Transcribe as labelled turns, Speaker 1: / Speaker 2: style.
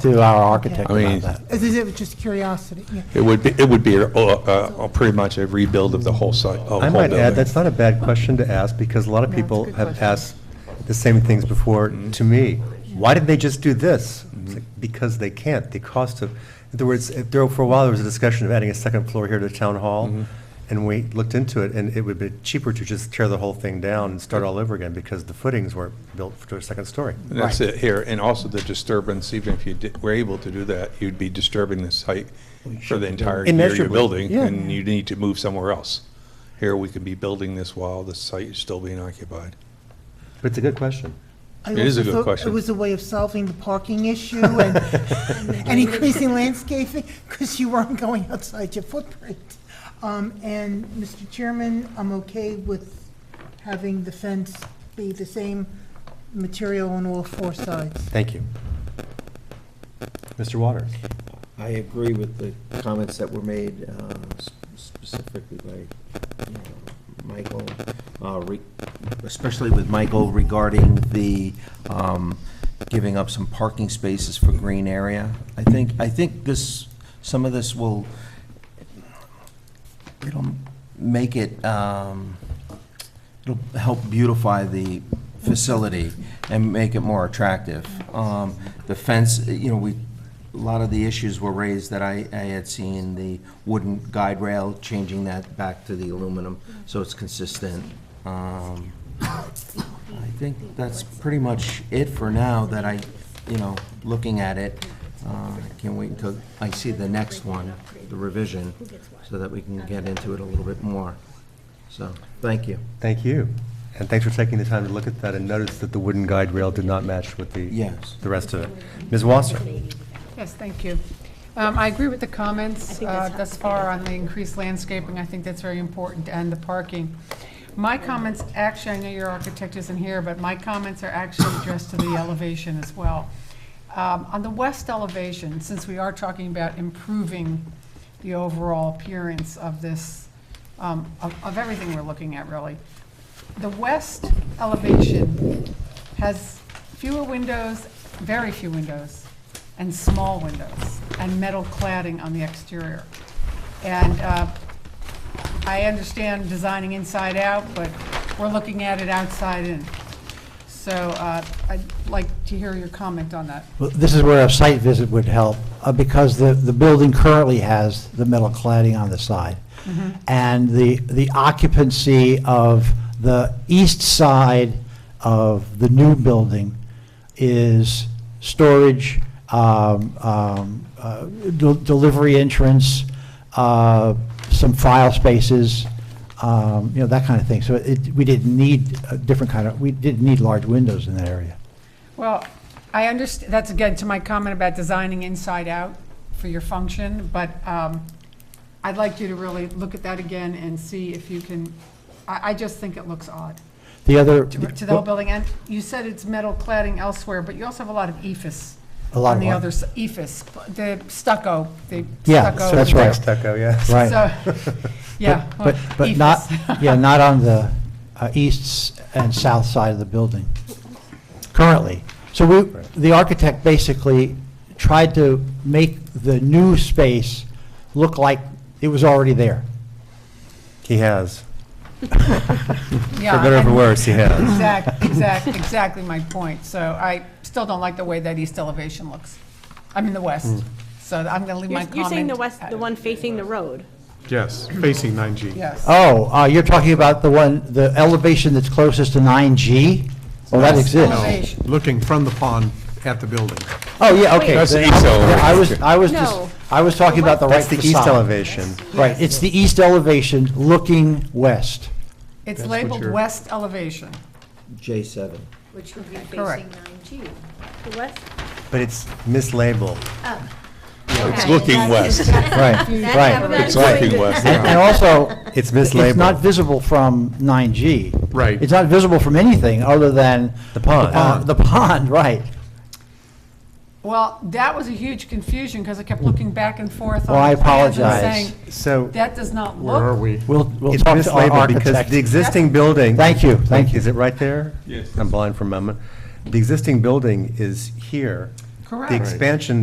Speaker 1: to our architect
Speaker 2: I mean-
Speaker 1: about that.
Speaker 3: As is it, just curiosity, yeah.
Speaker 2: It would be, it would be uh, uh, pretty much a rebuild of the whole site, of the whole
Speaker 4: I might add,
Speaker 2: building.
Speaker 4: that's not a bad question to ask, because a lot of
Speaker 5: No, it's a
Speaker 4: people
Speaker 5: good
Speaker 4: have
Speaker 5: question.
Speaker 4: asked the same things before
Speaker 2: Mm-hmm.
Speaker 4: to me. Why did they just do this? It's like, Because they can't, the cost of, in other words, if there, for a while, there was a discussion of adding a second floor here to Town Hall,
Speaker 2: Mm-hmm.
Speaker 4: and we looked into it, and it would be cheaper to just tear the whole thing down and start all over again, because the footings weren't built to a second story.
Speaker 2: And That's it here, and also the disturbance, even if you did- were able to do that, you'd be disturbing the site for the entire year you're
Speaker 4: Immeasurably,
Speaker 2: building,
Speaker 4: yeah.
Speaker 2: and you need to move somewhere else. Here, we could be building this while the site is still being occupied.
Speaker 4: But it's a good question.
Speaker 3: I
Speaker 2: It is
Speaker 3: also
Speaker 2: a good
Speaker 3: thought
Speaker 2: question.
Speaker 3: It was a way of solving the parking issue and, and increasing landscaping, because you weren't going outside your footprint. Um, and, Mr. Chairman, I'm okay with having the fence be the same material on all four sides.
Speaker 4: Thank you. Mr. Waters?
Speaker 6: I agree with the comments that were made uh, s- specifically by you know, Michael, uh, re- especially with Michael regarding the um, giving up some parking spaces for green area. I think, I think this, some of this will, it'll make it, um, it'll help beautify the facility and make it more attractive. Um, The fence, you know, we, a lot of the issues were raised that I, I had seen, the wooden guide rail, changing that back to the aluminum, so it's consistent. Um, I think that's pretty much it for now, that I, you know, looking at it, uh, I can't wait until I see the next one, the revision, so that we can get into it a little bit more. So, thank you.
Speaker 4: Thank you. And thanks for taking the time to look at that and notice that the wooden guide rail did not match with the,
Speaker 6: Yes.
Speaker 4: the rest of it. Ms. Wasser?
Speaker 5: Yes, thank you. Um, I agree with the comments uh, thus far on the increased landscaping. I think that's very important, and the parking. My comments, actually, I know your architect isn't here, but my comments are actually addressed to the elevation as well. Um, On the west elevation, since we are talking about improving the overall appearance of this, um, of of everything we're looking at, really, the west elevation has fewer windows, very few windows, and small windows, and metal cladding on the exterior. And uh, I understand designing inside out, but we're looking at it outside in. So uh, I'd like to hear your comment on that.
Speaker 1: Well, This is where a site visit would help, uh, because the, the building currently has the metal cladding on the side.
Speaker 5: Mm-hmm.
Speaker 1: And the, the occupancy of the east side of the new building is storage, um, um, uh, del- delivery entrance, uh, some file spaces, um, you know, that kind of thing. So it, we didn't need a different kind of, we didn't need large windows in that area.
Speaker 5: Well, I understand, that's again to my comment about designing inside out for your function, but um, I'd like you to really look at that again and see if you can, I, I just think it looks odd
Speaker 1: The other.
Speaker 5: to to the whole building. And you said it's metal cladding elsewhere, but you also have a lot of E ephes.
Speaker 1: A lot of
Speaker 5: On the
Speaker 1: what?
Speaker 5: other, s- ephes, the stucco, the
Speaker 1: Yeah,
Speaker 5: stucco.
Speaker 1: that's right.
Speaker 4: Stucco, yes.
Speaker 1: Right.
Speaker 5: So, Yeah. well, E
Speaker 1: But, but not,
Speaker 5: ephes.
Speaker 1: yeah, not on the uh, east s- and south side of the building, currently. So we, the architect basically tried to make the new space look like it was already there.
Speaker 4: He has.
Speaker 5: Yeah,
Speaker 4: For better or for
Speaker 5: and-
Speaker 4: worse, he has.
Speaker 5: Exactly, exactly, exactly my point. So I still don't like the way that east elevation looks. I'm in the west,
Speaker 1: Mm.
Speaker 5: so I'm going to leave my
Speaker 7: You're,
Speaker 5: comment.
Speaker 7: you're saying the west,
Speaker 5: at-
Speaker 7: the one facing the road.
Speaker 8: Yes, facing 9G.
Speaker 5: Yes.
Speaker 1: Oh, uh, you're talking about the one, the elevation that's closest to 9G? Well, that exists.
Speaker 5: Elevation.
Speaker 8: Looking from the pond at the building.
Speaker 1: Oh, yeah, okay.
Speaker 2: That's the
Speaker 1: Then I-
Speaker 2: east elevation.
Speaker 1: I was, I was, just-
Speaker 7: No.
Speaker 1: I was talking about the right
Speaker 4: That's the
Speaker 1: facade.
Speaker 4: east elevation.
Speaker 1: Right, it's the east elevation looking west.
Speaker 5: It's
Speaker 8: That's what
Speaker 5: labeled
Speaker 8: you're-
Speaker 5: west elevation.
Speaker 6: J7.
Speaker 9: Which would be
Speaker 5: Correct.
Speaker 9: facing 9G.
Speaker 7: The west,
Speaker 4: But it's mislabeled.
Speaker 2: It's looking west.
Speaker 1: Right, right.
Speaker 2: It's looking west.
Speaker 1: And and also,
Speaker 4: It's
Speaker 1: It's not
Speaker 4: mislabeled.
Speaker 1: visible from 9G.
Speaker 8: Right.
Speaker 1: It's not visible from anything other than.
Speaker 4: The pond.
Speaker 1: uh, The pond, right.
Speaker 5: Well, that was a huge confusion because I kept looking back and forth
Speaker 1: Well,
Speaker 5: on
Speaker 1: I
Speaker 5: the plans and
Speaker 1: apologize.
Speaker 5: saying,
Speaker 4: So
Speaker 5: that does not
Speaker 8: Where are
Speaker 5: look,
Speaker 8: we?
Speaker 1: We'll, we'll
Speaker 4: it's
Speaker 1: talk to our
Speaker 4: mislabeled because
Speaker 1: architect.
Speaker 4: the existing building.
Speaker 1: Thank you, thank you.
Speaker 4: Is it right there?
Speaker 2: Yes.
Speaker 4: I'm blind for a moment. The existing building is here.
Speaker 5: correct.
Speaker 4: The expansion